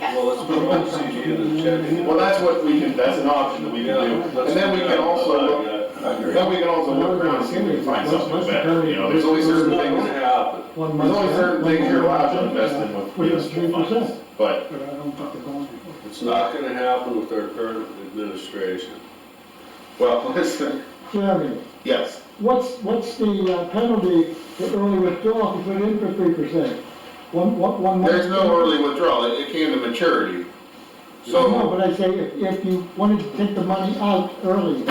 Well, let's move on to CG and then check. Well, that's what we can, that's an option that we can do. And then we can also, look- I agree. then we can also look around, see if we can find something better, you know, there's only certain There's things, nothing to happen. One there's only certain things you're allowed to invest in with We have three municipal funds. percent, But, but I don't think they're going anywhere. It's not gonna happen with our current administration. well, listen, Jeremy, yes, what's, what's the uh, penalty for early withdrawal if you put in for three percent? One, one, one. there's no early withdrawal, it, it came to maturity. No, So, but I say if, if you wanted to take the money out early,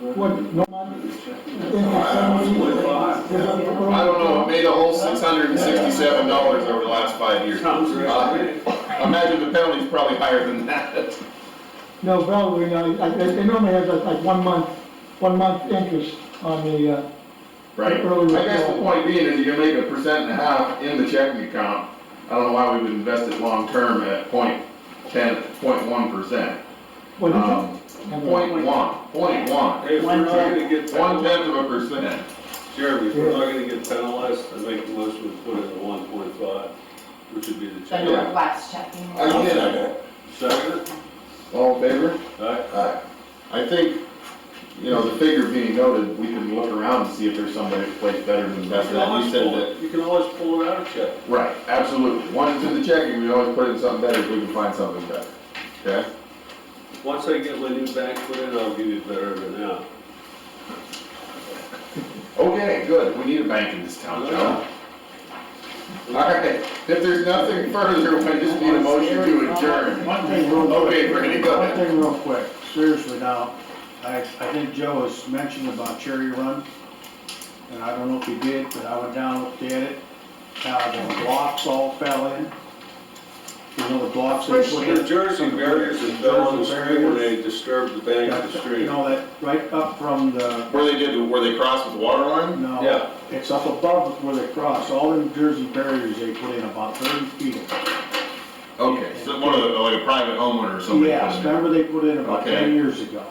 what, no money? If it's I somebody- don't know, it made a whole six hundred and sixty-seven dollars over the last five years. Sounds Uh, right. Imagine the penalty's probably higher than that. No, probably, no, I- they they normally have like like one month, one month interest on the, uh, Right. Early I guess the withdrawal. point being is you can make a percent and a half in the checking account. I don't know why we would invest it long-term at point ten, point one percent. what is it? Um, point one, point one. Hey, if we're not gonna get One penalized, tenth of a percent. Jeremy, if we're not gonna get penalized, I make the motion to put in the one point five, which would be the The check. Yeah. Northwest checking. I get it. Second, All in favor? alright, Aye. I think, you know, the figure being noted, we can look around and see if there's somebody that plays better than you best. can You always said pull that. it, you can always pull it out of check. Right, absolutely. Once it's in the checking, we always put in something better if we can find something better. Okay? Once I get my new bank put in, I'll give you better than that. Okay, good. We need a bank in this town, John. All right, if there's nothing further, we just need a motion to adjourn. One thing real quick. Okay, Randy, go ahead. One thing real quick, seriously now, I, I think Joe has mentioned about Cherry Run, and I don't know if he did, but I went down, looked at it, how the blocks all fell in. You know, the blocks they put in. The Jersey barriers that fell on the street when they disturbed the bank of the You street. know, that, right up from the, Where they did, where they crossed with water line? Yeah. no, it's up above where they cross, all them Jersey barriers they put in, about thirty feet. of them. Okay, so one of the, like a private homeowner or somebody. Yes, put it in. remember they put in about Okay. ten years ago.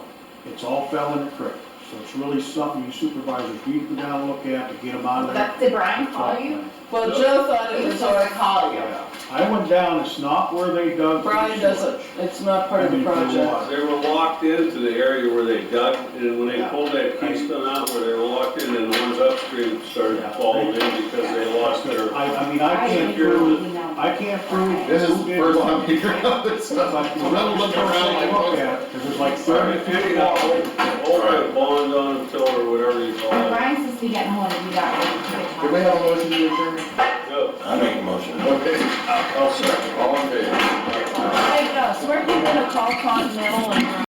It's all fell in the creek, so it's really something you supervisors need to go down and look at to get them out of there. That, did Brian call you? Well, Joe thought He it was was, over to call you. Yeah. I went down, it's not where they dug. for the Brian sewer. doesn't, it's not part of I the mean, for project. water. They were locked into the area where they dug, and when they pulled that keystone out where they were locked in, and the ones upstream started falling in because they lost their. I, I mean, I I can't didn't really prove, know. I can't prove. This is who the did first what. time we hear about this But stuff. I'm gonna look around like. Look at it, 'cause there's like Sorry, thirty. if you got over bond on them till or whatever you call it. Brian says we get hold of you that Do we way. have a motion to adjourn? Go. I make a motion. Okay. I'll second. All in favor? Hey, Gus, where are you gonna call Continental and